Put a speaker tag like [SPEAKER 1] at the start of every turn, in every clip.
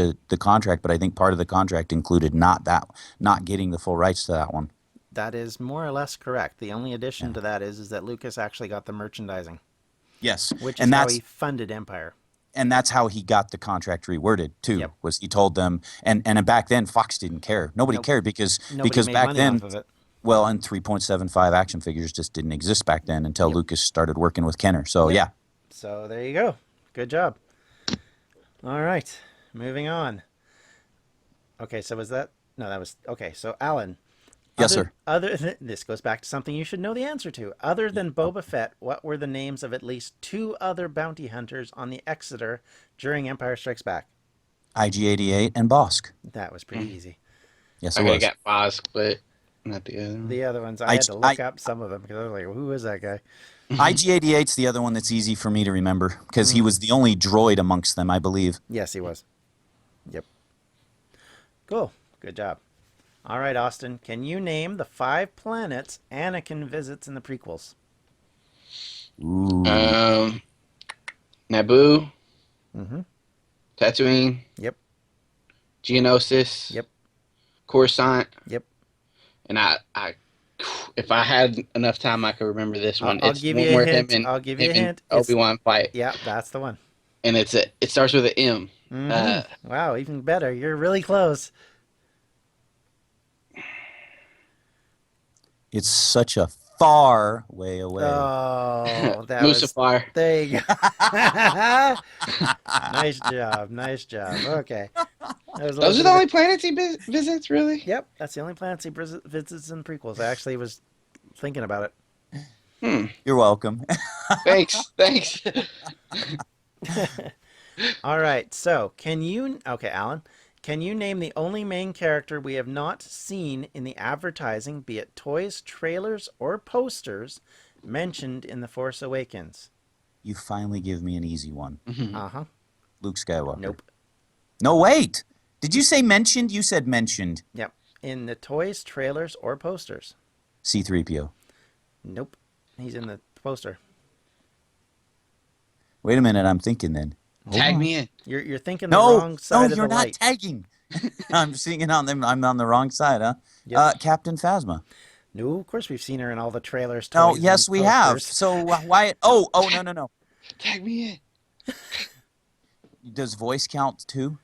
[SPEAKER 1] the, the contract, but I think part of the contract included not that not getting the full rights to that one.
[SPEAKER 2] That is more or less correct. The only addition to that is is that Lucas actually got the merchandising,
[SPEAKER 1] Yes,
[SPEAKER 2] which is
[SPEAKER 1] and
[SPEAKER 2] how
[SPEAKER 1] that's
[SPEAKER 2] he funded Empire.
[SPEAKER 1] and that's how he got the contract reworded too.
[SPEAKER 2] Yep.
[SPEAKER 1] Was he told them and and back then Fox didn't care. Nobody
[SPEAKER 2] Nope.
[SPEAKER 1] cared because
[SPEAKER 2] Nobody
[SPEAKER 1] because
[SPEAKER 2] made
[SPEAKER 1] back
[SPEAKER 2] money
[SPEAKER 1] then
[SPEAKER 2] off of it.
[SPEAKER 1] well and 3.75 action figures just didn't exist back then until
[SPEAKER 2] Yep.
[SPEAKER 1] Lucas started working with Kenner. So yeah.
[SPEAKER 2] So there you go. Good job. All right, moving on. Okay, so was that? No, that was okay. So Alan.
[SPEAKER 1] Yes,
[SPEAKER 2] other,
[SPEAKER 1] sir.
[SPEAKER 2] Other th- this goes back to something you should know the answer to. Other than Boba Fett, what were the names of at least two other bounty hunters on the Exeter during Empire Strikes Back?
[SPEAKER 1] IG88 and Bosk.
[SPEAKER 2] That was
[SPEAKER 1] Mm.
[SPEAKER 2] pretty easy.
[SPEAKER 1] Yes, it
[SPEAKER 3] Okay, I
[SPEAKER 1] was.
[SPEAKER 3] got Bosk, but not the other. one.
[SPEAKER 2] The other ones, I,
[SPEAKER 1] I
[SPEAKER 2] had
[SPEAKER 1] j-
[SPEAKER 2] to look
[SPEAKER 1] I-
[SPEAKER 2] up some of them because I was like, "Who is that guy?"
[SPEAKER 1] IG88's the other one that's easy for me to remember because
[SPEAKER 2] Mm.
[SPEAKER 1] he was the only droid amongst them, I believe.
[SPEAKER 2] Yes, he was. Yep. Cool. Good job. All right, Austin. Can you name the five planets Anakin visits in the prequels?
[SPEAKER 1] Ooh.
[SPEAKER 3] Um, Naboo,
[SPEAKER 2] Mm-hmm.
[SPEAKER 3] Tatooine.
[SPEAKER 2] Yep.
[SPEAKER 3] Geonosis.
[SPEAKER 2] Yep.
[SPEAKER 3] Coruscant.
[SPEAKER 2] Yep.
[SPEAKER 3] And I, I, if I had enough time, I could remember this
[SPEAKER 2] I'll-
[SPEAKER 3] one.
[SPEAKER 2] I'll
[SPEAKER 3] it's
[SPEAKER 2] give
[SPEAKER 3] one
[SPEAKER 2] you a
[SPEAKER 3] where
[SPEAKER 2] hint.
[SPEAKER 3] him and
[SPEAKER 2] I'll give you a hint. It's-
[SPEAKER 3] Obi Wan fight,
[SPEAKER 2] Yeah, that's the one.
[SPEAKER 3] and it's a, it starts with an M.
[SPEAKER 2] Mhm.
[SPEAKER 3] Uh,
[SPEAKER 2] wow, even better. You're really close.
[SPEAKER 1] It's such a far way away.
[SPEAKER 2] Oh, that was.
[SPEAKER 3] Mustafar.
[SPEAKER 2] There you go. nice Uh. job. Nice job. Okay. That was a
[SPEAKER 3] Those
[SPEAKER 2] little
[SPEAKER 3] are
[SPEAKER 2] bit
[SPEAKER 3] the
[SPEAKER 2] of a-
[SPEAKER 3] only planets he vis- visits, really.
[SPEAKER 2] Yep, that's the only planets he vis- visits in prequels. I actually was thinking about it.
[SPEAKER 1] You're welcome.
[SPEAKER 3] Hmm. Thanks, thanks.
[SPEAKER 2] All right. So, can you Okay, Alan, can you name the only main character we have not seen in the advertising, be it toys, trailers, or posters mentioned in The Force Awakens?
[SPEAKER 1] you finally give me an easy one.
[SPEAKER 2] Uh-huh.
[SPEAKER 1] Luke Skywalker.
[SPEAKER 2] Nope.
[SPEAKER 1] No, wait. Did you say mentioned? You said mentioned
[SPEAKER 2] Yep. In the toys, trailers, or posters?
[SPEAKER 1] C3PO.
[SPEAKER 2] Nope. He's in the poster.
[SPEAKER 1] Wait a minute. I'm thinking then.
[SPEAKER 3] Tag me in.
[SPEAKER 2] You're you're thinking the
[SPEAKER 1] No,
[SPEAKER 2] wrong
[SPEAKER 1] no,
[SPEAKER 2] side of
[SPEAKER 1] you're
[SPEAKER 2] the
[SPEAKER 1] not
[SPEAKER 2] light.
[SPEAKER 1] tagging. I'm seeing it on them. I'm on the wrong side, huh?
[SPEAKER 2] Yep.
[SPEAKER 1] Uh, Captain Phasma.
[SPEAKER 2] no, of course we've seen her in all the trailers. Toys,
[SPEAKER 1] No,
[SPEAKER 2] and
[SPEAKER 1] yes, we have.
[SPEAKER 2] posters.
[SPEAKER 1] So wh- why? Oh, oh, no, no, no.
[SPEAKER 3] Tag me in.
[SPEAKER 1] Does voice count too?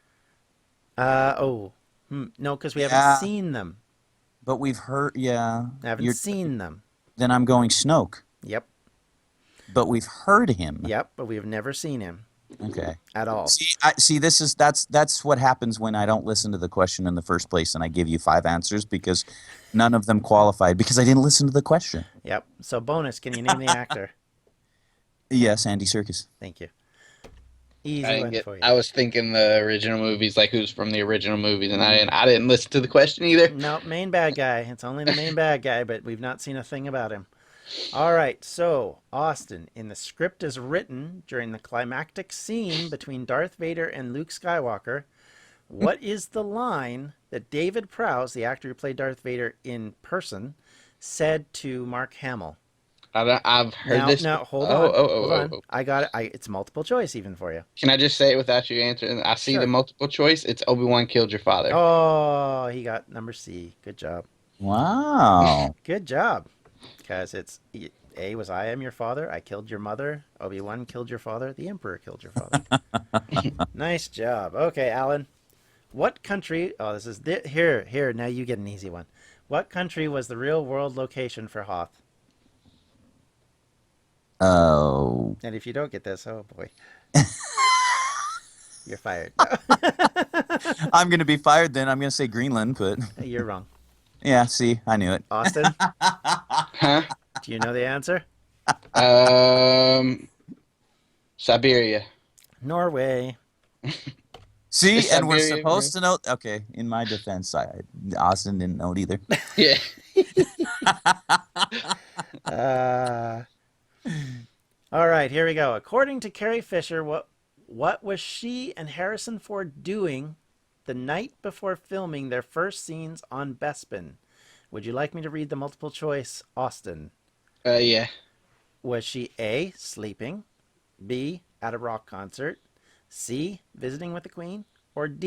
[SPEAKER 2] Uh oh, hmm. no, because we haven't
[SPEAKER 1] Yeah.
[SPEAKER 2] seen them.
[SPEAKER 1] But we've heard. Yeah.
[SPEAKER 2] I haven't
[SPEAKER 1] You're-
[SPEAKER 2] seen them.
[SPEAKER 1] Then I'm going Snoke.
[SPEAKER 2] Yep,
[SPEAKER 1] But we've heard him.
[SPEAKER 2] yep, but we have never seen him
[SPEAKER 1] Okay.
[SPEAKER 2] at all.
[SPEAKER 1] See, I, see, this is that's that's what happens when I don't listen to the question in the first place, and I give you five answers because none of them qualified because I didn't listen to the question.
[SPEAKER 2] Yep. So bonus, can you name the actor?
[SPEAKER 1] Yes, Andy Circus.
[SPEAKER 2] Thank you. Easy
[SPEAKER 3] I,
[SPEAKER 2] one
[SPEAKER 3] didn't get,
[SPEAKER 2] for you.
[SPEAKER 3] I was thinking the original movies, like who's from the original movies, and I didn't, I didn't listen to the question either.
[SPEAKER 2] No, main bad guy. It's only the main bad guy, but we've not seen a thing about him. All right, so Austin, in the script as written during the climactic scene between Darth Vader and Luke Skywalker, what is the line that David Prowse, the actor who played Darth Vader in person, said to Mark Hamill?
[SPEAKER 3] I don't, I've heard
[SPEAKER 2] now,
[SPEAKER 3] this.
[SPEAKER 2] now hold
[SPEAKER 3] oh,
[SPEAKER 2] on,
[SPEAKER 3] Oh, oh,
[SPEAKER 2] hold
[SPEAKER 3] oh,
[SPEAKER 2] on.
[SPEAKER 3] oh.
[SPEAKER 2] I got it. I, it's multiple choice even for you.
[SPEAKER 3] Can I just say it without you answering? I see
[SPEAKER 2] Sure.
[SPEAKER 3] the multiple choice. It's Obi Wan killed your father.
[SPEAKER 2] Oh, he got number C. Good job.
[SPEAKER 1] Wow.
[SPEAKER 2] Good job. Because it's y- A was I am your father, I killed your mother, Obi Wan killed your father, the Emperor killed your father. nice job. Okay, Alan. What country? Oh, this is thi- here, here. Now you get an easy one. What country was the real world location for Hoth?
[SPEAKER 1] Oh,
[SPEAKER 2] And if you don't get this, oh boy, you're fired.
[SPEAKER 1] I'm gonna be fired then. I'm gonna say Greenland, but
[SPEAKER 2] you're wrong.
[SPEAKER 1] yeah. See, I knew it.
[SPEAKER 2] Austin,
[SPEAKER 3] Huh?
[SPEAKER 2] do you know the answer?
[SPEAKER 3] Um, Siberia.
[SPEAKER 2] Norway.
[SPEAKER 1] See,
[SPEAKER 3] It's
[SPEAKER 1] and we're
[SPEAKER 3] Siberian,
[SPEAKER 1] supposed to know. Okay, in my defense, I, Austin didn't know it either.
[SPEAKER 3] Yeah.
[SPEAKER 2] Uh, all right, here we go. According to Carrie Fisher, what what was she and Harrison Ford doing the night before filming their first scenes on Bespin? Would you like me to read the multiple choice, Austin?
[SPEAKER 3] Uh, yeah.
[SPEAKER 2] Was she A, sleeping, B, at a rock concert, C, visiting with the Queen, or D,